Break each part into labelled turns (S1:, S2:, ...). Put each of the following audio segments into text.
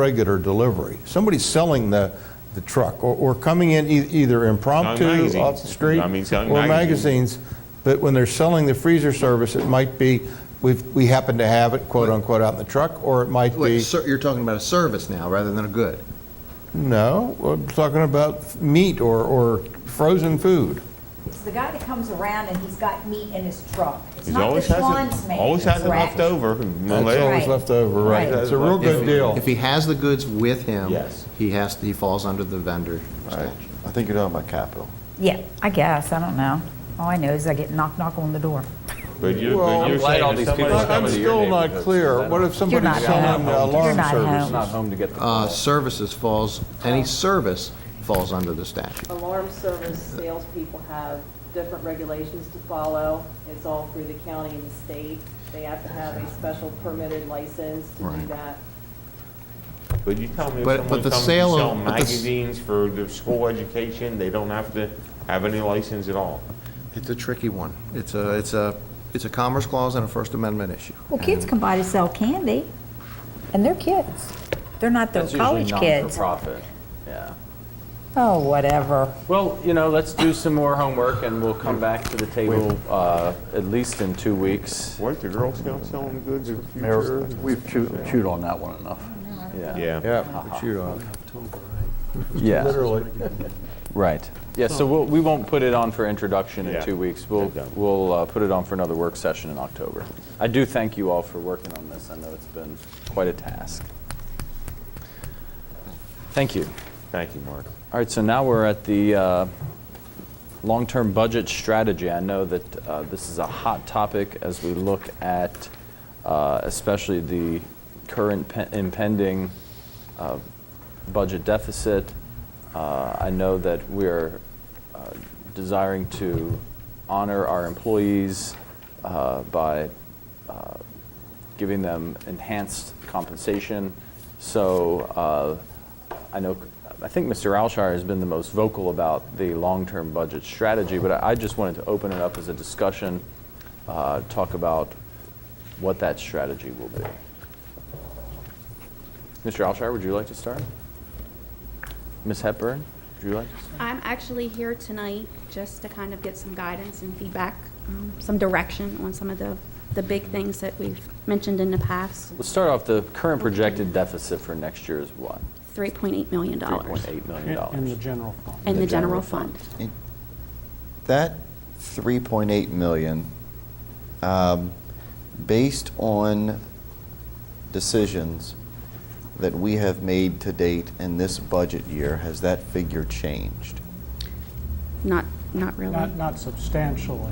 S1: regular delivery. Somebody's selling the, the truck or, or coming in e- either impromptu
S2: Selling
S1: off the
S2: magazines.
S1: street.
S2: I mean, selling
S1: Or
S2: magazines.
S1: magazines, but when they're selling the freezer service, it might be, we we happen to have it quote unquote out in the truck, or it might
S3: Wait,
S1: be,
S3: sir, you're talking about a service now rather than a good.
S1: no, I'm talking about meat or, or frozen food.
S4: It's the guy that comes around and he's got meat in his truck. It's
S2: He's
S4: not the
S2: always has,
S4: Schwan's
S2: it-
S4: man.
S2: always has it
S4: correct?
S2: left over.
S1: That's always
S4: Right.
S1: left over, right.
S4: Right.
S1: It's a real good deal.
S3: If he has the goods with him.
S2: Yes.
S3: He has, he falls under the vendor statute.
S5: I think you're talking about capital.
S6: Yeah, I guess, I don't know. All I know is I get knock, knock on the door.
S2: But you're,
S1: Well,
S2: but
S1: I'm
S2: you're
S7: glad all
S2: saying if
S7: these
S2: somebody
S7: people are
S1: I'm
S7: coming to your
S1: still not
S7: neighborhood, so
S1: clear.
S7: I
S1: What
S7: don't-
S1: if somebody's
S6: not
S1: selling
S6: home.
S1: the alarm
S6: You're not
S1: service?
S6: home.
S7: It's not home to get the
S3: Uh,
S7: call.
S3: Services falls, any service falls under the statute.
S8: Alarm service salespeople have different regulations to follow. It's all through the county and the state. They have to have a special permitted license to do
S3: Right.
S8: that.
S2: But you tell me if
S3: But-
S2: someone
S3: but the
S2: comes to
S3: sale of-
S2: sell
S3: but the s-
S2: magazines for their school education, they don't have to have any license at all.
S3: It's a tricky one. It's a, it's a, it's a Commerce Clause and a First Amendment issue.
S6: Well, kids come by to sell candy, and they're kids. They're not the
S7: That's usually
S6: college kids.
S7: non-for-profit, yeah.
S6: Oh, whatever.
S7: Well, you know, let's do some more homework, and we'll come back to the table uh, at least in two weeks.
S2: What, the Girl Scouts selling goods in the
S9: Mayor,
S2: future?
S9: we've chewed chewed on that one enough.
S7: Yeah, Uh-huh.
S2: Yeah.
S1: Yeah, shoot off.
S7: yeah,
S1: Literally.
S7: right. Yeah, so we'll- we won't put it on for introduction
S2: Yeah.
S7: in two weeks. We'll,
S2: Good job.
S7: we'll uh, put it on for another work session in October. I do thank you all for working on this. I know it's been quite a task. Thank you.
S2: Thank you, Mark.
S7: All right, so now we're at the uh, long-term budget strategy. I know that uh, this is a hot topic as we look at uh, especially the current pe- impending uh, budget deficit. Uh, I know that we are uh, desiring to honor our employees uh, by uh, giving them enhanced compensation. So uh, I know, I think Mr. Alshire has been the most vocal about the long-term budget strategy, but I I just wanted to open it up as a discussion, uh, talk about what that strategy will be. Mr. Alshire, would you like to start? Ms. Hepburn, would you like to start?
S10: I'm actually here tonight just to kind of get some guidance and feedback, um, some direction on some of the, the big things that we've mentioned in the past.
S7: Let's start off, the current projected deficit for next year is what?
S10: $3.8 million.
S7: $3.8 million.
S9: general fund.
S10: In
S7: the
S10: the
S7: general
S10: general fund.
S5: That 3.8 million, um, based on decisions that we have made to date in this budget year, has that figure changed?
S10: Not, not really.
S9: not substantially.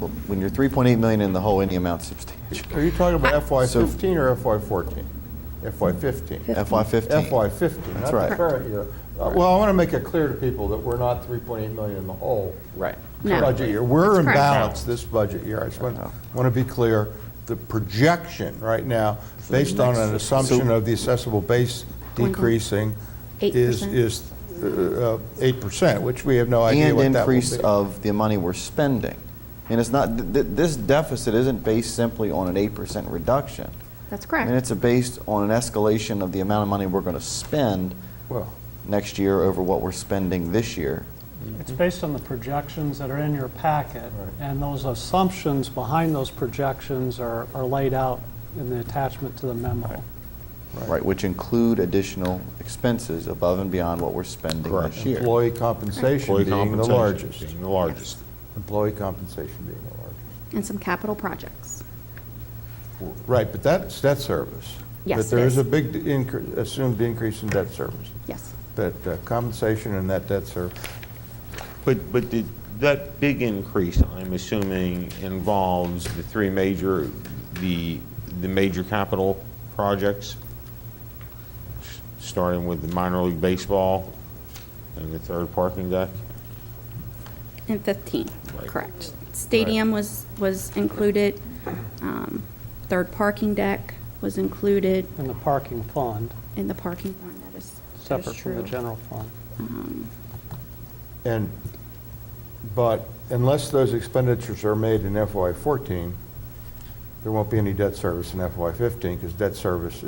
S5: Well, When you're 3.8 million in the hole, any amount substantial.
S1: Are you talking about FY
S5: So-
S1: fifteen or FY fourteen? FY fifteen?
S5: FY '15.
S1: FY fifteen. not
S5: That's
S1: the
S5: right.
S1: current year. Uh, Well, I want to make it clear to people that we're not three point eight million in the hole.
S7: Right.
S10: No.
S1: Budget year. We're
S10: That's
S1: in
S10: correct.
S1: balance this budget year. I just want, want to be clear. The projection right now, based on an assumption of the assessable base
S10: One point-
S1: decreasing, is,
S10: 8%.
S1: is uh, eight percent, which we have no idea
S5: And
S1: what that will
S5: increase
S1: be.
S5: of the money we're spending. And it's not, th- th- this deficit isn't based simply on an 8% reduction.
S10: That's
S5: And
S10: correct.
S5: it's a- based on an escalation of the amount of money we're going to spend
S1: Well,
S5: next year over what we're spending this year.
S11: It's based on the projections that are in your packet, and those assumptions behind those projections are, are laid out in the attachment to the memo.
S5: Right, which include additional expenses above and beyond what we're spending this year.
S1: Employee compensation
S2: Employee
S1: being the
S2: compensation
S1: largest.
S2: being the largest.
S1: Employee compensation being the largest.
S10: And some capital projects.
S1: Right, but that's debt service.
S10: Yes,
S1: But there
S10: it
S1: is a
S10: is.
S1: big incre- assumed increase in debt service,
S10: Yes.
S1: that uh, compensation and that debt service.
S2: But, but the- that big increase, I'm assuming, involves the three major, the, the major capital projects, s- starting with the minor league baseball and the third parking deck?
S10: And 15,
S2: Right.
S10: correct. Stadium was, was included, um, third parking deck was included
S11: In the parking fund,
S10: in the parking fund, that is, that is
S11: separate from
S10: true.
S11: the general fund.
S1: And, but unless those expenditures are made in FY14, there won't be any debt service in FY15 because debt service is